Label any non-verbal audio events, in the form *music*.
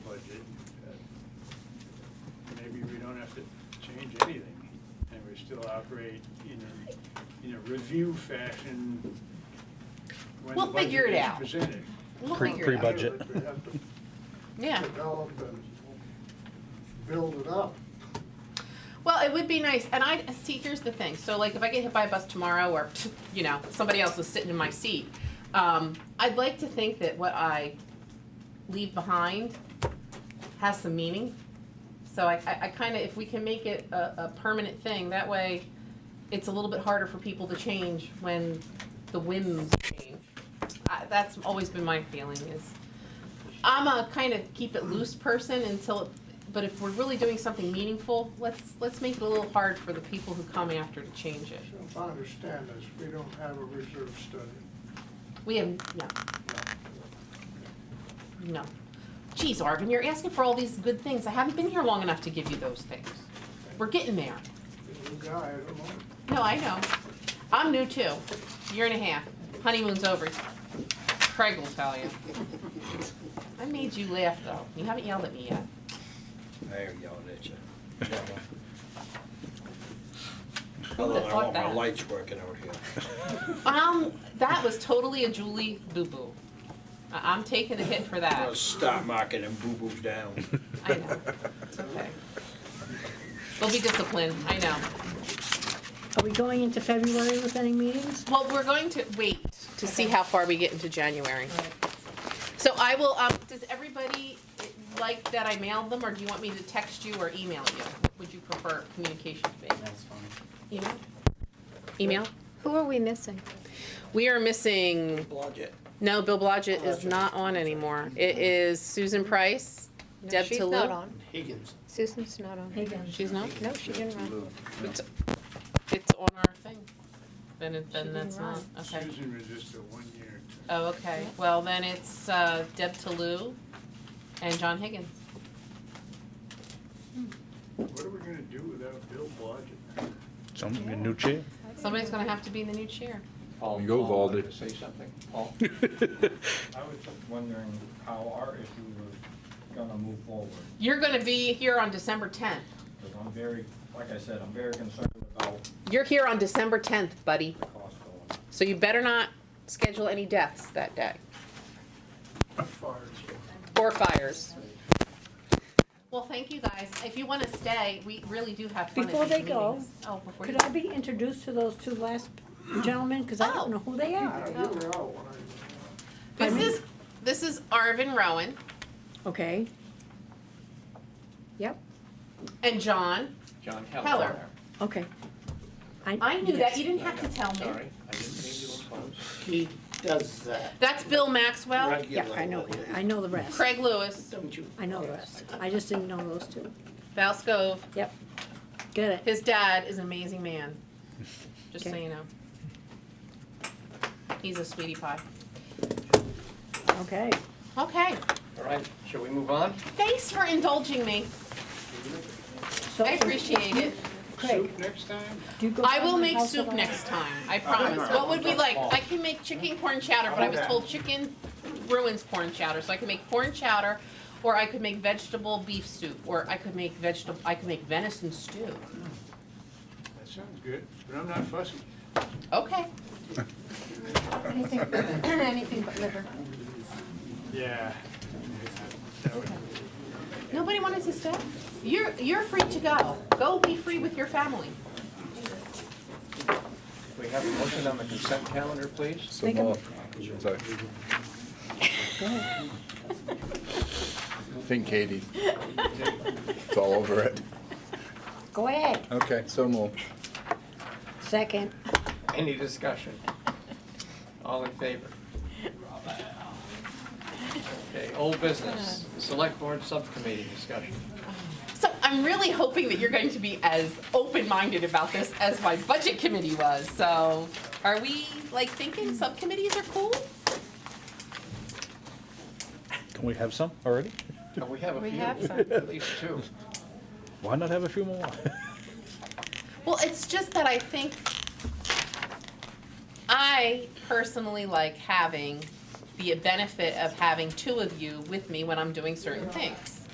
uh, still operate in a, in a review fashion when the We'll figure budget it is out. presented. We'll Pre- figure it out. pre-budget. They have to Yeah. Develop and build it up. Well, it would be nice, and I, see, here's the thing, so like, if I get hit by a bus tomorrow, or, you know, somebody else is sitting in my seat, um, I'd like to think that what I leave behind has some meaning. So I, I, I kinda, if we can make it a, a permanent thing, that way, it's a little bit harder for people to change when the whims change. I, that's always been my feeling is, I'm a kind of keep it loose person until, it- but if we're really doing something meaningful, let's, let's make it a little hard for the people who come after to change it. So If I understand this, we don't have a reserve study. We have, no, no. Geez, Arvin, you're asking for all these good things. I haven't been here long enough to give you those things. We're getting there. The new guy, I don't know. No, I know. I'm new too. Year and a half. Honeymoon's over. Craig will tell you. I made you laugh though. You haven't yelled at me yet. They're yelling at you. Who Although would've I thought want my that? lights working out here. Um, that was totally a Julie boo-boo. I- I'm taking the hit for I'm gonna that. stop marking them boo-boos down. I know. It's okay. We'll be disciplined, I know. Are we going into February with any meetings? Well, we're going to wait to see how far we get into January. So I will, um, does everybody like that I mailed them, or do you want me to text you or email you? Would you prefer communication to be? That's fine. Email? Email? Who are we missing? We are missing, Blodgett. no, Bill Blodgett is not on anymore. It is Susan Price, No, Deb She's not Talu. on. Higgins. Susan's not on. She's not? No, she didn't run. It's, it's on our thing. Then it, then Should be that's not, right. okay. Susan was just a one-year. Oh, okay. Well, then it's, uh, Deb Talou and John Higgins. What are we gonna do without Bill Blodgett? Some new chair. Somebody's gonna have to be the new chair. You go, Valdy. Say something, *laughs* Paul? I was just wondering how our issue was gonna move forward, You're gonna be here on December tenth. because I'm very, like I said, I'm very concerned about You're here on December tenth, buddy. cost going up. So you better not schedule any deaths that day, or fires. Well, thank you, guys. If you wanna stay, we really do have fun at Before these they go, meetings. Oh, before you Could I be introduced to those two last gentlemen, because Oh. I don't know who they Yeah, are? you were out when I. This is, this is Arvin Rowan Okay. Yep, and John. John Heller. Heller. okay. I knew that, yes. you didn't have to tell me. Sorry, I didn't mean to impose. He does that. That's Bill Maxwell, Yeah, I know, I know the rest, Craig Lewis, Don't you? I know the rest, I just didn't know those two, Val Scove. yep. Get it, His dad is an amazing man, just so Okay. you know. He's a sweetie pie. okay. Okay, All right, shall we move on? thanks for indulging me. So- I appreciate it. Craig, Soup next time? do you *laughs* go I will down to make House of soup Art? next time, I promise. What would we like? I can make chicken corn chowder, but I was told chicken ruins corn chowder, so I can make corn chowder, or I could make vegetable beef soup, or I could make vegetable, I could make venison stew. That sounds good, but I'm not fussy. Okay, Anything, anything but liver. Yeah. nobody wanted to stay? You're, you're free to go. Go be free with your family. We have a motion on the consent calendar, please. So Make 'em- moved. Sorry. Think Katie. It's all over it. Go ahead, Okay, so moved. second, Any discussion? All in favor? Okay, old business, select board subcommittee discussion. So I'm really hoping that you're going to be as open-minded about this as my budget committee was. So are we like thinking subcommittees are cool? Can we have some already? Now, We have a We few, have some. at least two. Why not have a few more? Well, it's just that I think I personally like having the benefit of having two of you with me when I'm doing certain things.